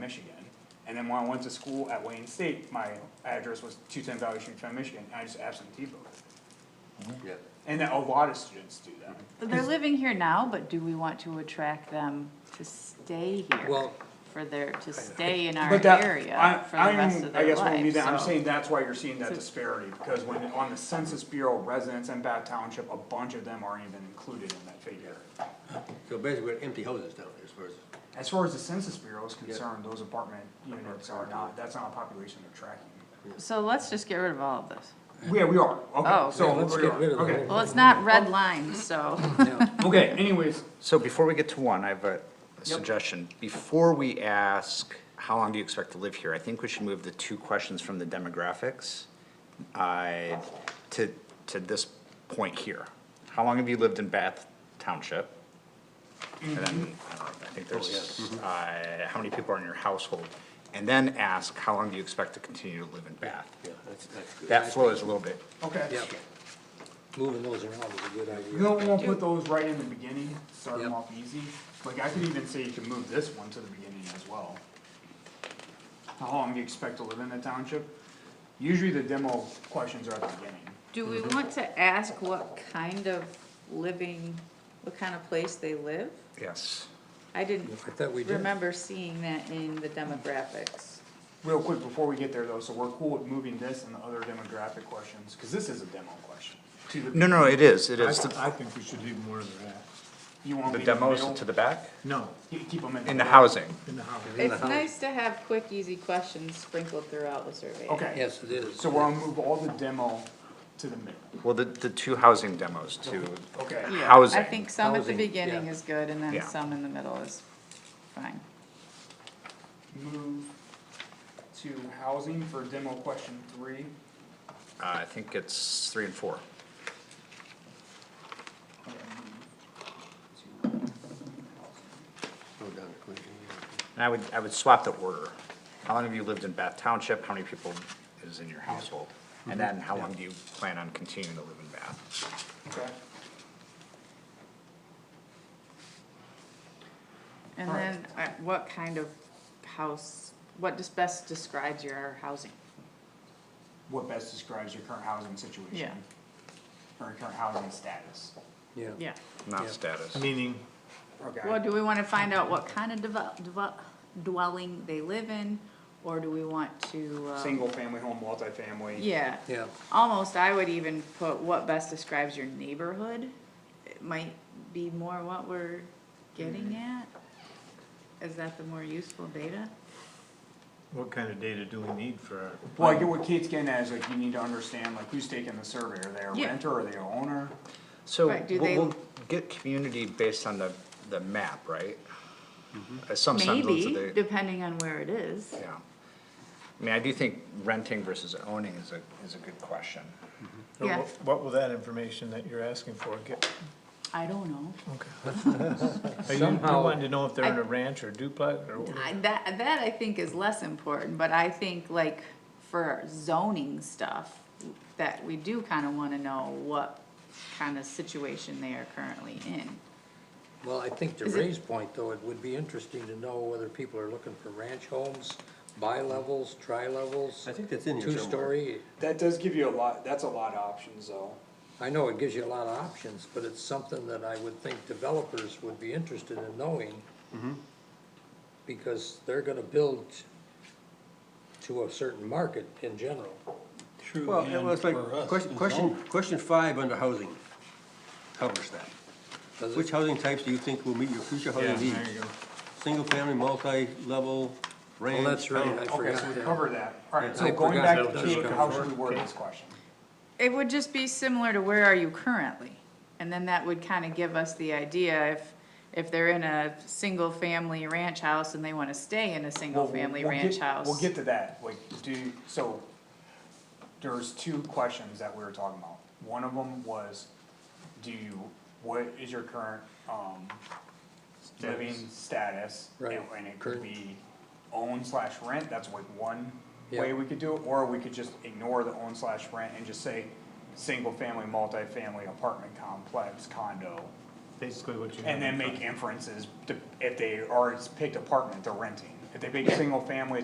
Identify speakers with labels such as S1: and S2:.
S1: Michigan. And then when I went to school at Wayne State, my address was two ten Valley Street, Trent, Michigan, and I just absentee voted.
S2: Yeah.
S1: And that- a lot of students do that.
S3: They're living here now, but do we want to attract them to stay here?
S2: Well-
S3: For their, to stay in our
S1: But that,
S3: area
S1: I,
S3: for the
S1: I
S3: rest
S1: am,
S3: of
S1: I
S3: their
S1: guess when we
S3: life,
S1: do that, I'm saying
S3: so.
S1: that's why you're seeing that
S3: So-
S1: disparity, because when, on the Census Bureau residents in Bath Township, a bunch of them aren't even included in that figure.
S2: So basically, we're empty houses down there as far as,
S1: As far as the Census Bureau is concerned, those apartment units are not, that's not a population they're tracking.
S3: So let's just get rid of all of this.
S1: Yeah, we are,
S3: Oh.
S1: okay, so
S2: Yeah, let's
S1: we
S2: get
S1: are,
S2: rid of the
S1: okay.
S2: whole
S3: Well, it's not red line, so.
S1: Okay, anyways,
S4: So before we get to one, I have a suggestion. Before we ask, how long do you expect to live here? I think we should move the two questions from the demographics uh, to, to this point here. How long have you lived in Bath Township? And then, I don't know, I think there's, uh, how many people are in your household? And then ask, how long do you expect to continue to live in Bath?
S2: yeah, that's, that's good.
S4: That flows a little bit.
S1: okay.
S2: Yeah. Moving those around is a good idea.
S1: You don't wanna put those right in the beginning, start them
S2: Yep.
S1: off easy, like I could even say you can move this one to the beginning as well. How long do you expect to live in the township? Usually the demo questions are at the beginning.
S3: Do we want to ask what kind of living, what kind of place they live?
S4: Yes.
S3: I didn't
S2: I thought we did.
S3: remember seeing that in the demographics.
S1: Real quick, before we get there though, so we're cool with moving this and the other demographic questions, cause this is a demo question. To the-
S4: No, no, it is, it
S5: I,
S4: is.
S5: th-
S4: The
S5: I think we should leave them where they're at.
S1: You want
S4: the
S1: me to
S4: demos
S1: mail-
S4: to the back?
S5: No,
S1: keep- Keep them in.
S4: In the housing.
S5: in the house.
S2: In the
S3: It's
S2: house.
S3: nice to have quick, easy questions sprinkled throughout the survey.
S1: Okay.
S2: Yes, it is.
S1: So we're gonna move all the demo to the middle.
S4: Well, the, the two housing demos too.
S1: Okay.
S3: Yeah, I
S4: Housing.
S3: think some at the
S2: Housing,
S3: beginning
S2: yeah.
S3: is good, and then
S4: Yeah.
S3: some in the middle is fine.
S1: Move to housing for demo question three.
S4: Uh, I think it's three and four.
S1: Okay, move to housing.
S2: Go down to Clinton,
S4: And I would, I would swap the order. How long have you lived in Bath Township? How many people is in your household? And then how long do you plan on continuing to live in Bath?
S1: Okay,
S3: And
S1: All right.
S3: then, uh, what kind of house, what just best describes your housing?
S1: what best describes your current housing situation?
S3: Yeah.
S1: Or your current housing status?
S2: yeah. Yeah.
S3: Yeah.
S4: Not
S2: Yeah.
S4: status.
S5: Meaning,
S3: Well,
S1: Okay,
S3: do we wanna find out what kind of devel- devel- dwelling they live in, or do we want to, uh?
S1: single family home, multifamily.
S3: Yeah.
S2: Yeah.
S3: Almost, I would even put what best describes your neighborhood, it might be more what we're getting at. Is that the more useful data?
S5: what kind of data do we need for our?
S1: Well, I get what Kate's getting at is like you need to understand like who's taking the survey. Are they a
S3: Yeah.
S1: renter? Are they a owner?
S4: So
S3: Right, do
S4: we'll,
S3: they-
S4: we'll get community based on the, the map, right?
S1: Mm-hmm.
S4: Uh, Some semblance of
S3: Maybe,
S4: the,
S3: depending on where it is.
S4: yeah. I mean, I do think renting versus owning is a, is a good question.
S5: So
S3: Yeah.
S5: what- What will that information that you're asking for get?
S3: I don't know.
S5: Are you, you
S2: Somehow-
S5: wanting to know if they're in a ranch or duplex or? what?
S3: I, that, that I think is less important, but I think like for zoning stuff, that we do kinda wanna know what kind of situation they are currently in.
S2: Well, I think to
S3: Is it-
S2: Ray's point, though, it would be interesting to know whether people are looking for ranch homes, bi-levels, tri-levels.
S6: I think that's in here somewhere.
S2: Two-story.
S1: That does give you a lot, that's a lot of options though.
S2: I know it gives you a lot of options, but it's something that I would think developers would be interested in knowing.
S6: Mm-hmm.
S2: Because they're gonna build to a certain market in general.
S6: True. Well, it was like, question, question, question five under housing covers that.
S2: Does
S6: Which
S2: it,
S6: housing types do you think will meet your future
S5: Yeah,
S6: housing needs?
S5: there you go.
S6: Single family, multi-level, ranch.
S2: that's right,
S6: town-
S2: I
S1: Okay,
S2: forgot
S1: so we
S2: that.
S1: covered that. Alright, so
S2: I
S1: going
S2: forgot
S1: back
S2: that
S1: to
S2: does
S1: Kate,
S2: cover
S1: how
S2: it.
S1: should we word this question?
S3: It would just be similar to where are you currently? And then that would kinda give us the idea if, if they're in a single-family ranch house and they wanna stay in a
S1: Well, we'll-
S3: single-family
S1: we'll get-
S3: ranch house.
S1: We'll get to that, like, do, so, there's two questions that we were talking about. One of them was, do you, what is your current, um, living status?
S2: Right.
S1: And- And it could be own slash rent, that's like one way
S2: Yeah.
S1: we could do it, or we could just ignore the own slash rent and just say, single family, multifamily, apartment complex, condo,
S5: Basically what you.
S1: and then make inferences to, if they are, it's picked apartment, they're renting. If they make single family,